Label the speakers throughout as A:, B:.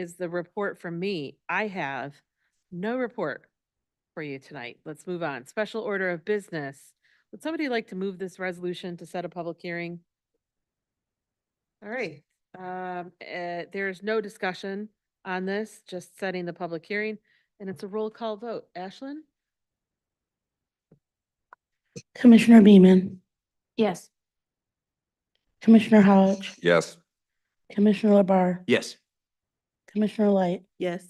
A: is the report from me. I have no report for you tonight. Let's move on. Special order of business. Would somebody like to move this resolution to set a public hearing? All right, um, uh, there is no discussion on this, just setting the public hearing, and it's a roll call vote. Ashlyn?
B: Commissioner Beaman,
C: Yes.
B: Commissioner Hodge,
D: Yes.
B: Commissioner Labar,
D: Yes.
B: Commissioner Light,
C: Yes.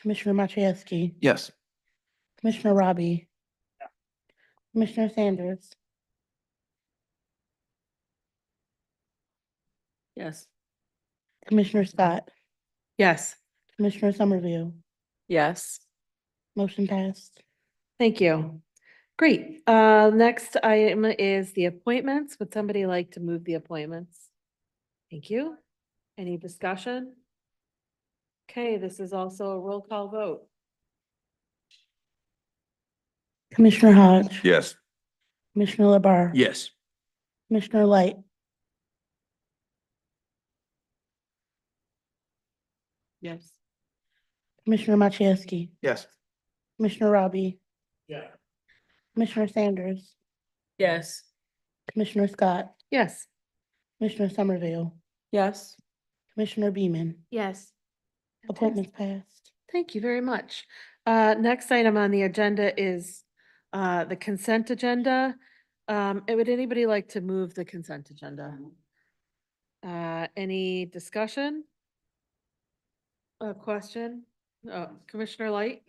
B: Commissioner Machewski,
D: Yes.
B: Commissioner Robbie, Commissioner Sanders,
C: Yes.
B: Commissioner Scott,
A: Yes.
B: Commissioner Somerville.
C: Yes.
B: Motion passed.
A: Thank you. Great. Uh, next item is the appointments. Would somebody like to move the appointments? Thank you. Any discussion? Okay, this is also a roll call vote.
B: Commissioner Hodge.
D: Yes.
B: Commissioner Labar.
D: Yes.
B: Commissioner Light,
C: Yes.
B: Commissioner Machewski,
D: Yes.
B: Commissioner Robbie,
D: Yeah.
B: Commissioner Sanders,
C: Yes.
B: Commissioner Scott,
A: Yes.
B: Commissioner Somerville,
C: Yes.
B: Commissioner Beaman.
C: Yes.
B: Appointments passed.
A: Thank you very much. Uh, next item on the agenda is, uh, the consent agenda. Um, and would anybody like to move the consent agenda? Uh, any discussion? A question? Uh, Commissioner Light?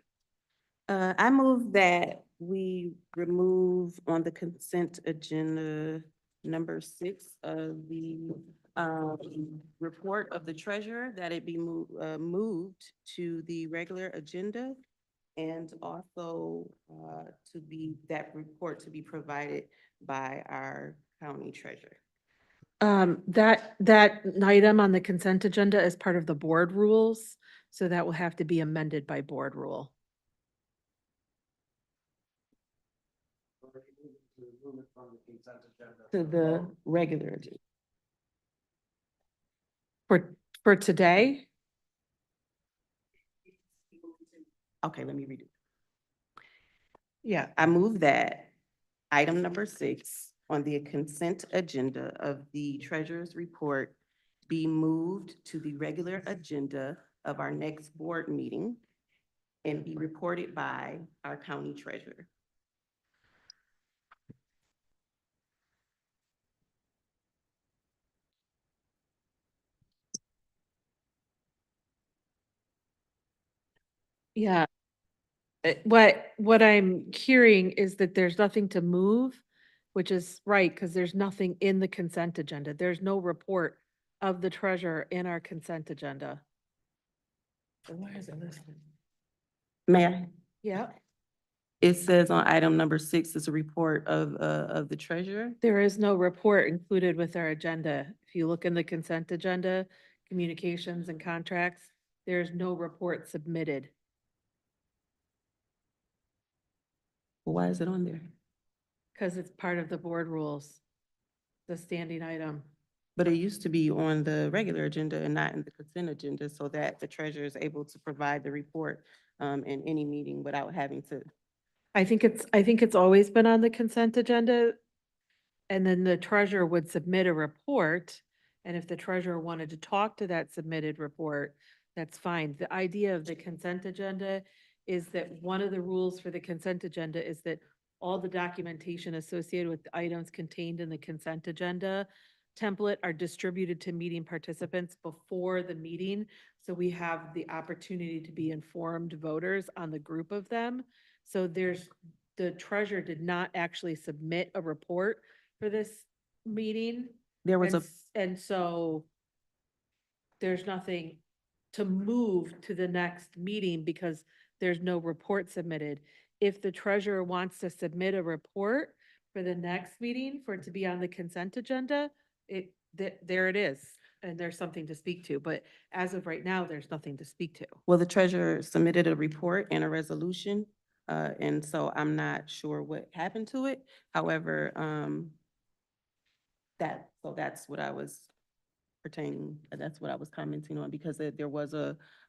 E: Uh, I move that we remove on the consent agenda number six of the, um, report of the treasurer, that it be moved, uh, moved to the regular agenda. And also, uh, to be, that report to be provided by our county treasurer.
A: Um, that, that item on the consent agenda is part of the board rules, so that will have to be amended by board rule.
E: To the regular agenda.
A: For, for today,
E: Okay, let me read it.
A: yeah,
E: I move that item number six on the consent agenda of the treasurer's report be moved to the regular agenda of our next board meeting and be reported by our county treasurer.
A: yeah. Uh, What, what I'm hearing is that there's nothing to move, which is right, because there's nothing in the consent agenda. There's no report of the treasurer in our consent agenda.
E: May I?
A: Yeah,
E: It says on item number six is a report of, uh, of the treasurer.
A: there is no report included with our agenda. If you look in the consent agenda, communications and contracts, there's no report submitted.
E: Why is it on there?
A: Because it's part of the board rules, the standing item.
E: But it used to be on the regular agenda and not in the consent agenda so that the treasurer is able to provide the report um, in any meeting without having to.
A: I think it's, I think it's always been on the consent agenda. And then the treasurer would submit a report. And if the treasurer wanted to talk to that submitted report, that's fine. The idea of the consent agenda is that one of the rules for the consent agenda is that all the documentation associated with the items contained in the consent agenda template are distributed to meeting participants before the meeting. So we have the opportunity to be informed voters on the group of them. So there's, the treasurer did not actually submit a report for this meeting.
E: There was
A: And,
E: a,
A: s- and so there's nothing to move to the next meeting because there's no report submitted. If the treasurer wants to submit a report for the next meeting for it to be on the consent agenda, it, th- there it is. And there's something to speak to, but as of right now, there's nothing to speak to.
E: well, the treasurer submitted a report and a resolution. Uh, and so I'm not sure what happened to it. However, um, that, so that's what I was pertaining, that's what I was commenting on, because there there was a